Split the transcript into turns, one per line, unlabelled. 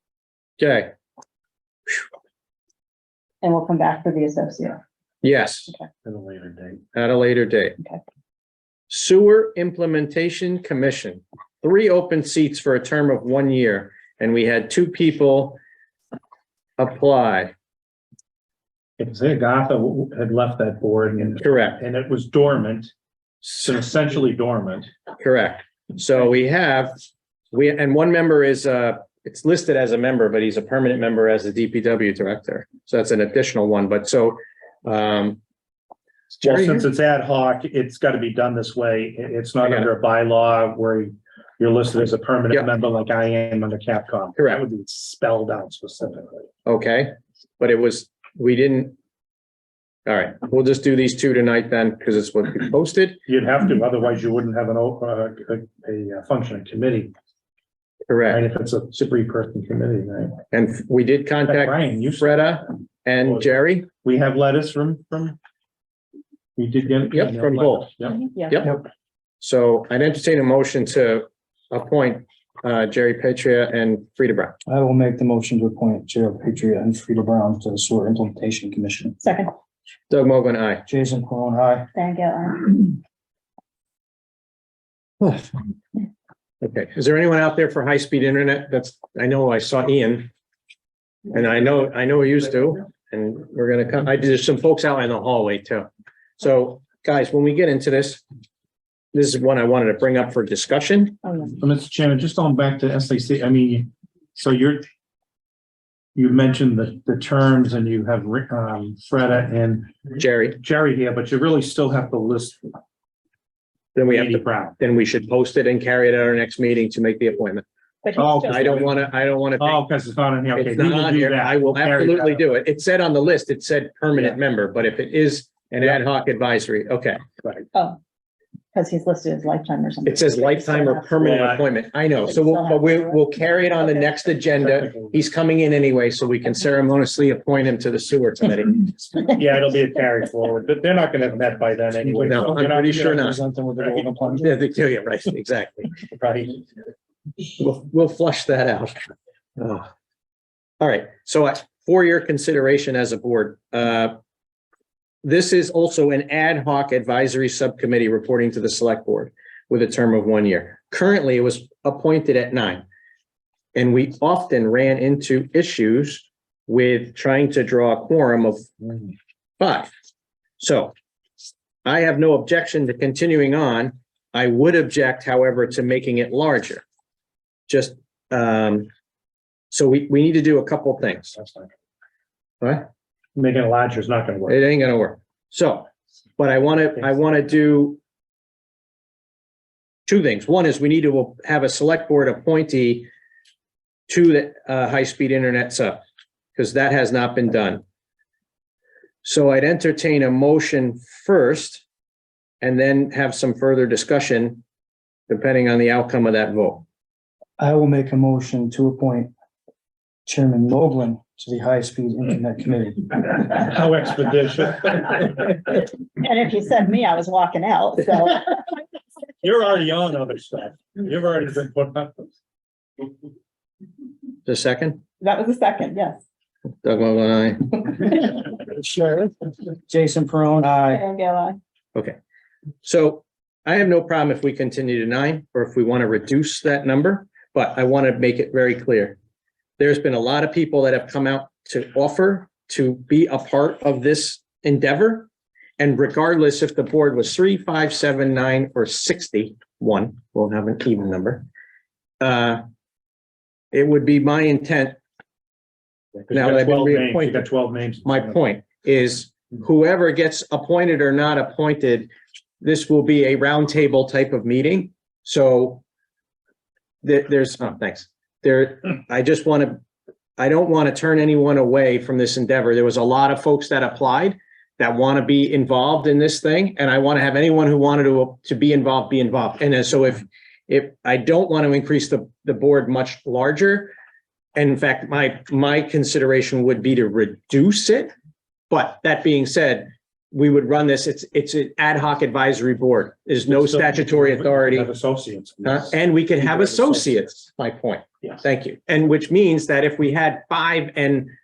Okay,
and we'll come back for the associate.
yes,
At a later date.
at a later date.
Okay.
Sewer Implementation Commission, three open seats for a term of one year, and we had two people apply,
Because Agatha had left that board and,
correct,
and it was dormant, so
So-
essentially dormant.
correct. So we have, we, and one member is, uh, it's listed as a member, but he's a permanent member as the DPW Director. So that's an additional one, but so, um,
Well,
Jerry
since it's ad hoc, it's got to be done this way. It- it's not
I got
under a bylaw where you're listed as a
Yeah.
permanent member like I am under Capcom.
Correct.
That would be spelled out specifically.
Okay, but it was, we didn't. All right, we'll just do these two tonight then, because it's what we posted,
You'd have to, otherwise you wouldn't have an, o- uh, a, a functioning committee, right?
correct?
If it's a three-person committee, right?
And we did contact
Brian, you,
Freda and Jerry.
we have letters from, from? You did get?
Yep, from both.
Yep.
Yeah.
Yep. So I'd entertain a motion to appoint uh, Jerry Petria and Frida Brown.
I will make the motion to appoint Gerald Patriot and Frida Brown to the Sewer Implementation Commission.
Second,
Doug Mogul, aye.
Jason Perron, aye.
thank you.
Okay, is there anyone out there for high-speed internet? That's, I know I saw Ian. And I know, I know he used to, and we're gonna come, I, there's some folks out in the hallway too. So, guys, when we get into this, this is one I wanted to bring up for discussion.
Oh, yeah.
Uh, Mr. Chairman, just on back to SAC, I mean, so you're, you mentioned the, the terms and you have, Rick, um, Freda and
Jerry,
Jerry here, but you really still have to list
then we have
Andy
to,
Brown.
then we should post it and carry it at our next meeting to make the appointment.
But
Oh,
he's
I
still-
don't wanna, I don't wanna. take-
Oh, because it's not in here. Okay,
It's
we
not
will
on
do
here. I
that.
will
Carry that
absolutely
out.
do it. It said on the list, it said permanent member, but if it is an ad hoc advisory, okay.
Oh, because he's listed as lifetime or something.
It says lifetime or permanent appointment. I know. So we'll, but we, we'll carry it on the next agenda. He's coming in anyway, so we can ceremoniously appoint him to the sewer committee.
Yeah, it'll be a carry forward, but they're not gonna have met by then anyway.
No,
so
I'm
you're not-
pretty sure
you're
not.
Present them with the golden plunge.
Yeah, they do, yeah, right, exactly.
Right.
We'll, we'll flush that out. Ugh. All right, so I- for your consideration as a board, uh, this is also an ad hoc advisory subcommittee reporting to the select board with a term of one year. Currently, it was appointed at nine. And we often ran into issues with trying to draw a quorum of five. So I have no objection to continuing on. I would object, however, to making it larger. Just, um, so we, we need to do a couple things.
That's fine.
What?
Making it larger is not gonna work.
It ain't gonna work. So, but I wanna, I wanna do two things. One is we need to have a select board appointee to the, uh, high-speed internet sub, because that has not been done. So I'd entertain a motion first and then have some further discussion depending on the outcome of that vote.
I will make a motion to appoint Chairman Moglen to the High Speed Internet Committee.
How expeditious.
And if you said me, I was walking out, so.
You're already on other stuff. You've already been put up.
The second,
That was the second, yes.
Doug Mogul, aye.
Sure. Jason Perron, aye.
Thank you, I.
So I have no problem if we continue to nine or if we want to reduce that number, but I want to make it very clear. There's been a lot of people that have come out to offer to be a part of this endeavor. And regardless if the board was three, five, seven, nine, or sixty-one, we'll have an even number. Uh, it would be my intent Now that I've been reappointed.
You got twelve names.
my point is whoever gets appointed or not appointed, this will be a roundtable type of meeting. So there, there's, oh, thanks. There, I just want to, I don't want to turn anyone away from this endeavor. There was a lot of folks that applied that want to be involved in this thing, and I want to have anyone who wanted to, to be involved, be involved. And so if, if, I don't want to increase the, the board much larger, and in fact, my, my consideration would be to reduce it. But that being said, we would run this, it's, it's an ad hoc advisory board. There's no
So-
statutory authority.
Have associates.
uh, And we could have associates, my point.
Yes.
Thank you. And which means that if we had five and